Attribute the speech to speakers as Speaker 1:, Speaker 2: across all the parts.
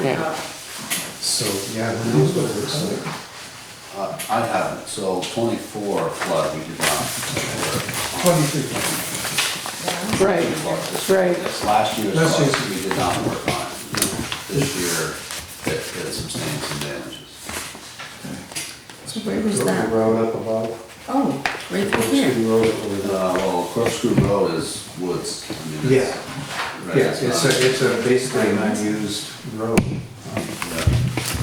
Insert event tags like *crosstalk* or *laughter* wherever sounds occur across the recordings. Speaker 1: Yeah.
Speaker 2: So, yeah, who knows what it looks like?
Speaker 3: Uh, I haven't, so twenty-four flood, we did not.
Speaker 2: Twenty-three.
Speaker 1: Right, right.
Speaker 3: This last year's
Speaker 2: Last year's-
Speaker 3: flood, we did not work on it. This year, it it sustained some damages.
Speaker 4: So where was
Speaker 2: Built the
Speaker 4: that?
Speaker 2: Road up above.
Speaker 4: Oh, right
Speaker 2: Built
Speaker 4: over here.
Speaker 2: the road over there.
Speaker 3: Uh, well, Corkscrew Road is woods. I mean,
Speaker 2: Yeah,
Speaker 3: it's- right,
Speaker 2: yeah, it's
Speaker 3: not-
Speaker 2: a, it's a basically an unused road. Um,
Speaker 3: yeah.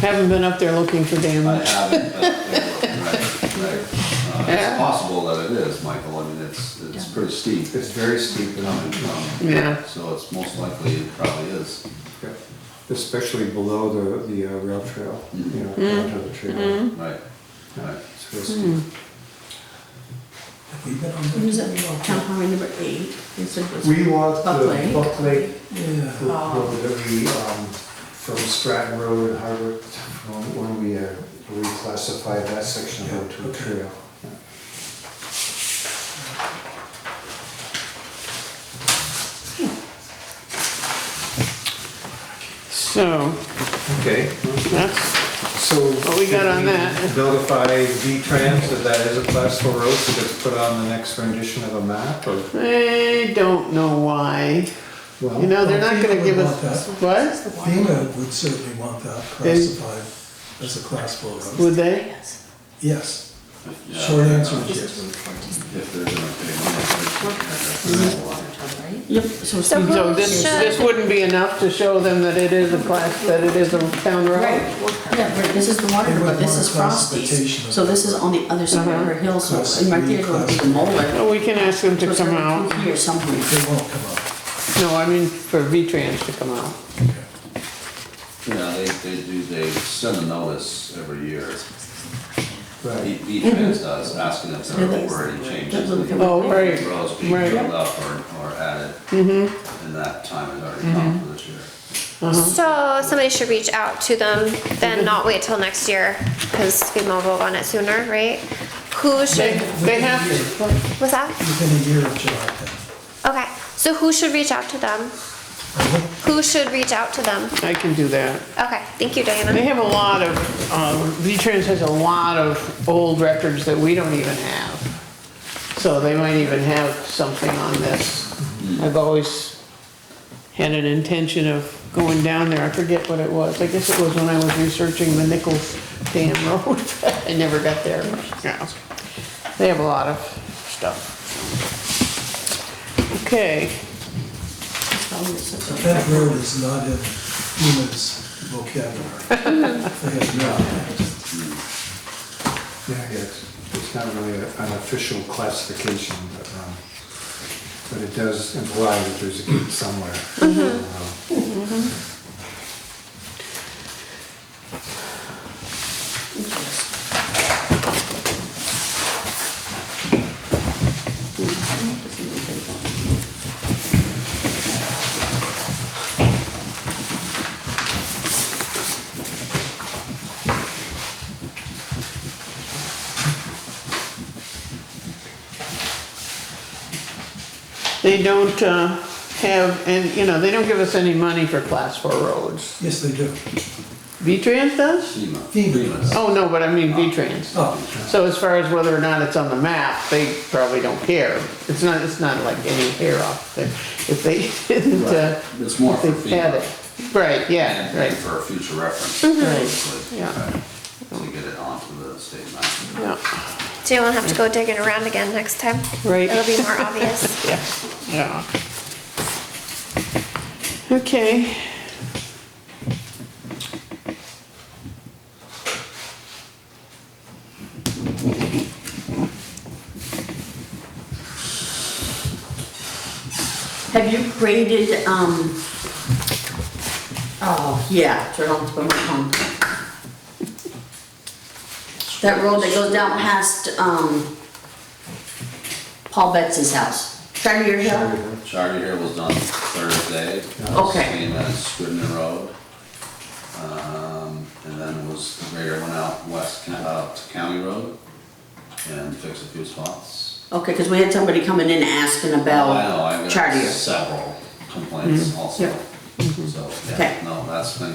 Speaker 1: Haven't been up there looking for
Speaker 3: I
Speaker 1: damage.
Speaker 3: haven't, but, yeah, right, right. Uh,
Speaker 1: Yeah.
Speaker 3: It's possible that it is, Michael, I mean, it's, it's pretty steep.
Speaker 2: It's very steep and Um,
Speaker 3: Coming from-
Speaker 1: Yeah.
Speaker 3: So it's most likely, it probably is.
Speaker 2: Yeah. especially below the, the uh, rail trail, you know, down to
Speaker 4: Mm-hmm.
Speaker 2: the trail.
Speaker 3: Right, right.
Speaker 2: It's real steep.
Speaker 5: We've been on
Speaker 4: It was at town highway number eight. They said it was.
Speaker 2: We walked
Speaker 4: Hmm. Buck
Speaker 2: the
Speaker 4: Lake. Oh.
Speaker 2: Buck Lake
Speaker 5: Yeah.
Speaker 2: road that we, um, from Stratton Road and Harvard, from when we, uh, reclassified that section of road to a trail.
Speaker 1: So,
Speaker 2: Okay.
Speaker 1: that's,
Speaker 2: So.
Speaker 1: What we got on that?
Speaker 2: should we Notify V-Trans that that is a class four road, so that's put on the next rendition of a map or?
Speaker 1: I don't know why. You know, they're not gonna give us, what?
Speaker 5: FEMA would certainly want that classified as a class four road.
Speaker 1: Would they?
Speaker 5: Yes,
Speaker 3: Yeah.
Speaker 5: short answer is yes.
Speaker 3: If they're gonna pay more.
Speaker 4: Yep, so it's.
Speaker 6: So who
Speaker 1: So this,
Speaker 6: should-
Speaker 1: this wouldn't be enough to show them that it is a class, that it is a town
Speaker 4: Right,
Speaker 1: road?
Speaker 4: yeah, right, this is the water,
Speaker 5: They would
Speaker 4: but this
Speaker 5: want
Speaker 4: is
Speaker 5: a
Speaker 4: Frosty's,
Speaker 5: classification.
Speaker 4: so this is on the other side of her hill, so,
Speaker 5: Class
Speaker 4: and right
Speaker 5: three,
Speaker 4: there would be
Speaker 5: class
Speaker 4: the molar.
Speaker 1: Well, We can ask them Uh-huh. to
Speaker 4: So
Speaker 1: come
Speaker 4: they're
Speaker 1: out.
Speaker 4: Here somewhere.
Speaker 5: They won't come up.
Speaker 1: No, I mean for V-Trans to come out.
Speaker 3: Yeah, they, they do, they send a notice every year,
Speaker 2: Right.
Speaker 1: Mm-hmm.
Speaker 3: E-Trans does, uh, asking if there are already changes. in the
Speaker 1: Oh, right,
Speaker 3: Roads being
Speaker 1: right.
Speaker 3: filled up or, or added. Mm-hmm. And that time has already come
Speaker 1: Mm-hmm.
Speaker 3: for this year.
Speaker 6: So somebody should reach out to them, then not wait till next year, because FEMA will vote on it sooner, right? Who
Speaker 1: They,
Speaker 6: should,
Speaker 1: they have to.
Speaker 6: what's that?
Speaker 5: Within a year of July tenth.
Speaker 6: Okay, so who should reach out to them? Who should reach out to them?
Speaker 1: I can do that.
Speaker 6: Okay, thank you,
Speaker 1: They
Speaker 6: Diana.
Speaker 1: have a lot of, um, V-Trans has a lot of old records that we don't even have. So they might even have something on this. I've always had an intention of going down there. I forget what it was. I guess it was when I was researching the Nichols Dam *laughs* Road. I never got there. Yeah. They have a lot of stuff. Okay,
Speaker 5: But that road is not in FEMA's vocabulary. They have not.
Speaker 2: Yeah, yeah, it's, it's not really a- an official classification, but, um, but it does imply that there's a gate somewhere.
Speaker 1: Mm-hmm.
Speaker 2: Um,
Speaker 1: they don't, uh, have, and, you know, they don't give us any money for class four roads.
Speaker 5: Yes, they do.
Speaker 1: V-Trans does?
Speaker 3: FEMA.
Speaker 5: FEMA.
Speaker 1: Oh, no, but I mean V-Trans.
Speaker 5: Oh,
Speaker 1: So as far as whether or not it's on the map, they probably don't care. It's not, it's not like any hair off there. If they didn't, uh,
Speaker 3: It's more for
Speaker 1: if they had
Speaker 3: FEMA.
Speaker 1: it. Right, yeah,
Speaker 3: And and
Speaker 1: right,
Speaker 3: for future reference.
Speaker 1: Right, yeah.
Speaker 3: To get it onto the state map.
Speaker 1: yeah,
Speaker 6: So you won't have to go digging around again next time.
Speaker 1: Right.
Speaker 6: It'll be more obvious.
Speaker 1: yeah, yeah. Okay.
Speaker 4: Have you created, um, oh, yeah, turn on to my phone. That road that goes down past, um, Paul Betts's house, Charter Hill?
Speaker 3: Charter here was done Thursday.
Speaker 4: Okay.
Speaker 3: Same as Scrivener Road. Um, and then was, the grader went out west, out to County Road and fixed a few spots.
Speaker 4: Okay, cause we had somebody coming in asking
Speaker 3: I know,
Speaker 4: about
Speaker 3: I've got
Speaker 4: Charter.
Speaker 3: several complaints also. So,
Speaker 4: Mm-hmm. Okay.
Speaker 3: yeah, no, that's been